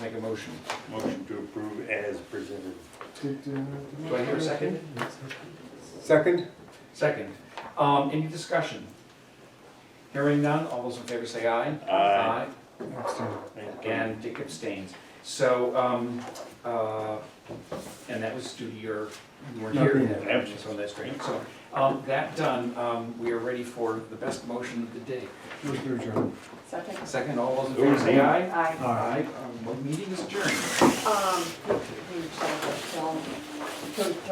make a motion. Motion to approve as presented. Do I hear a second? Second? Second. Um, any discussion? Hearing none, all those in favor say aye. Aye. Abstain. Thank you. And Dick abstains. So, um, uh, and that was due to your, you weren't Not here. being absent. So that's great. So, um, that done, um, we are ready for the best motion of the day. Move to adjourn. Second. Second, all those in favor say aye. Aye. Aye. Um, Meeting is adjourned. Um, who, who, who,